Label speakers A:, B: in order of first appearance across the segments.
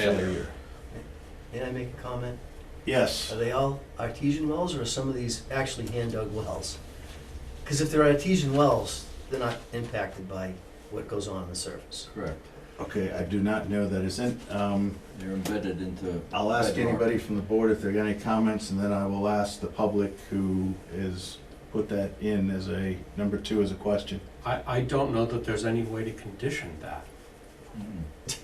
A: failure.
B: May I make a comment? Are
C: Yes,
B: they all artesian wells or are some of these actually hand dug wells? Because if they're artesian wells, they're not impacted by what goes on on the surface.
D: Correct.
C: okay, I do not know that isn't. Um,
D: They're embedded into.
C: I'll ask
D: bedrock.
C: anybody from the board if there are any comments, and then I will ask the public who has put that in as a, number two as a question.
E: I, I don't know that there's any way to condition that.
D: Mm.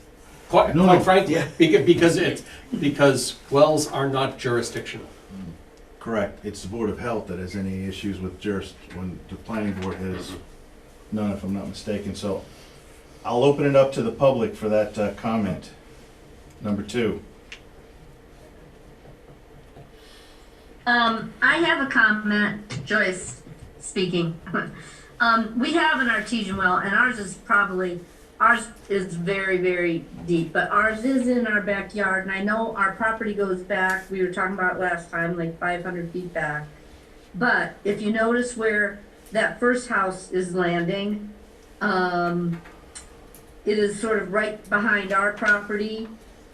E: Quite,
C: Mm-hmm. No, no.
E: quite frankly, beca- because it's, because wells are not jurisdictional.
D: Mm.
C: Correct, it's the Board of Health that has any issues with juris, when the planning board has none, if I'm not mistaken, so I'll open it up to the public for that uh, comment. Number two.
F: Um, I have a comment, Joyce speaking. um, we have an artesian well, and ours is probably, ours is very, very deep, but ours is in our backyard. And I know our property goes back, we were talking about last time, like 500 feet back. But if you notice where that first house is landing, um, it is sort of right behind our property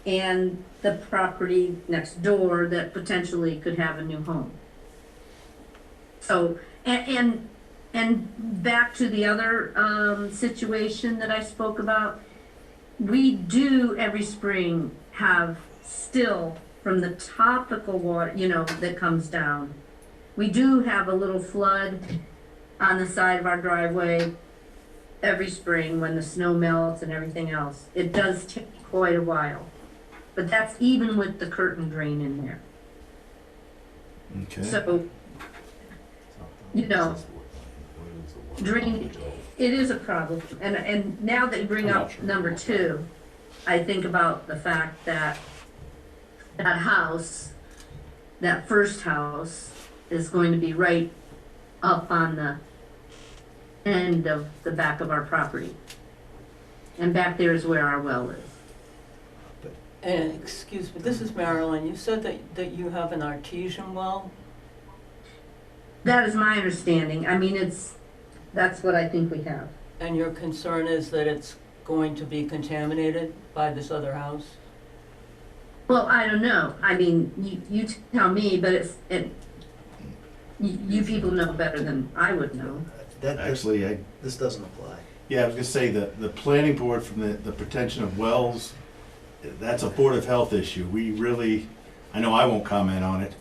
F: and the property next door that potentially could have a new home. So, and, and, and back to the other, um, situation that I spoke about, we do every spring have still from the topical water, you know, that comes down. We do have a little flood on the side of our driveway every spring when the snow melts and everything else. It does take quite a while. But that's even with the curtain drain in there.
C: Okay.
F: So You know, drain- it is a problem. And, and now that you bring
E: I'm not
F: up
E: sure.
F: number two, I think about the fact that that house, that first house is going to be right up on the end of the back of our property. And back there is where our well is.
G: And, excuse me, this is Marilyn, you said that, that you have an artesian well?
F: That is my understanding. I mean, it's, that's what I think we have.
G: And your concern is that it's going to be contaminated by this other house?
F: Well, I don't know. I mean, you, you tell me, but it's, it, you, you people know better than I would know.
B: Uh, That, this,
C: Actually, I
B: this doesn't apply.
C: Yeah, I was gonna say, the, the planning board from the, the protection of wells, that's a Board of Health issue. We really, I know I won't comment on it.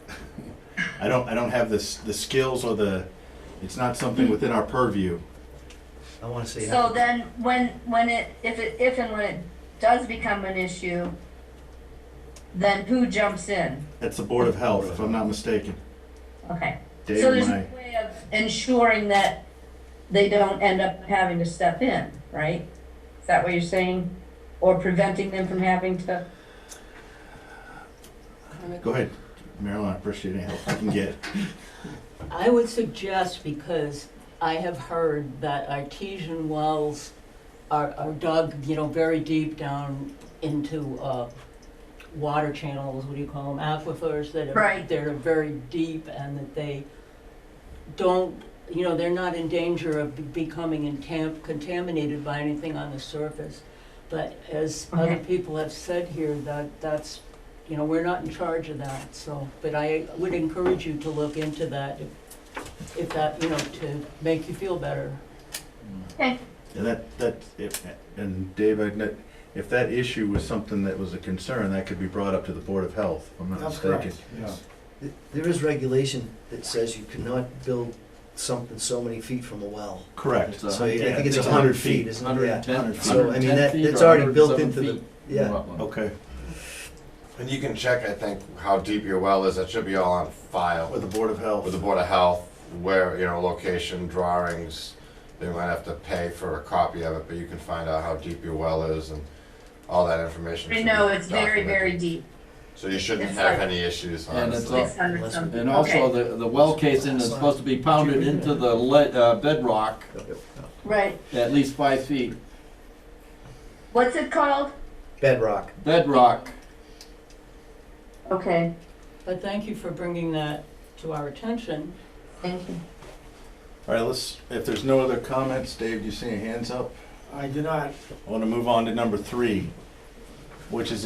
C: I don't, I don't have the, s- the skills or the, it's not something within our purview.
B: I want to say.
F: So then, when, when it, if it, if and when it does become an issue, then who jumps in?
C: That's the Board of Health, if I'm not mistaken.
F: Okay. So
C: Dave,
F: there's
C: my,
F: no way of ensuring that they don't end up having to step in, right? Is that what you're saying? Or preventing them from having to?
C: go ahead, Marilyn, I appreciate any help I can get.
G: I would suggest, because I have heard that artesian wells are, are dug, you know, very deep down into, uh, water channels, what do you call them, aquifers that are.
F: Right.
G: They're very deep and that they don't, you know, they're not in danger of be- becoming entam- contaminated by anything on the surface. But as other
F: Okay.
G: people have said here, that, that's you know, we're not in charge of that, so, but I would encourage you to look into that if, if that, you know, to make you feel better.
C: And that, that, if, and Dave, I'd not- if that issue was something that was a concern, that could be brought up to the Board of Health, if I'm not
D: That's
C: mistaken.
D: correct, yeah.
B: Th- There is regulation that says you cannot build something so many feet from a well.
C: Correct.
D: It's a
B: So I
D: hun-
C: yeah,
B: think it's
C: it's
B: a
C: 100
B: hundred
C: feet.
B: feet, isn't it?
D: Hundred
B: Yeah.
D: and ten.
B: So, I mean, that- that's already built into the- yeah.
C: Okay,
H: And you can check, I think, how deep your well is. That should be all on file
C: with the Board of Health.
H: with the Board of Health, where, you know, location, drawings. They might have to pay for a copy of it, but you can find out how deep your well is and all that information.
F: We
H: should
F: know
H: be
F: it's very, very
H: documented.
F: deep,
H: So you shouldn't
F: It's
H: have
F: like-
H: any issues,
D: And it's
H: honestly.
D: all-
F: six hundred something.
D: And also,
F: Okay,
D: the, the well casing is supposed to be pounded into the lead, uh, bedrock
F: Right,
D: at least five feet.
F: what's it called?
B: Bedrock.
D: Bedrock,
F: Okay,
G: But thank you for bringing that to our attention.
F: thank you.
C: All right, let's, if there's no other comments, Dave, do you see any hands up?
I: I do not
C: I want to move on to number three, which is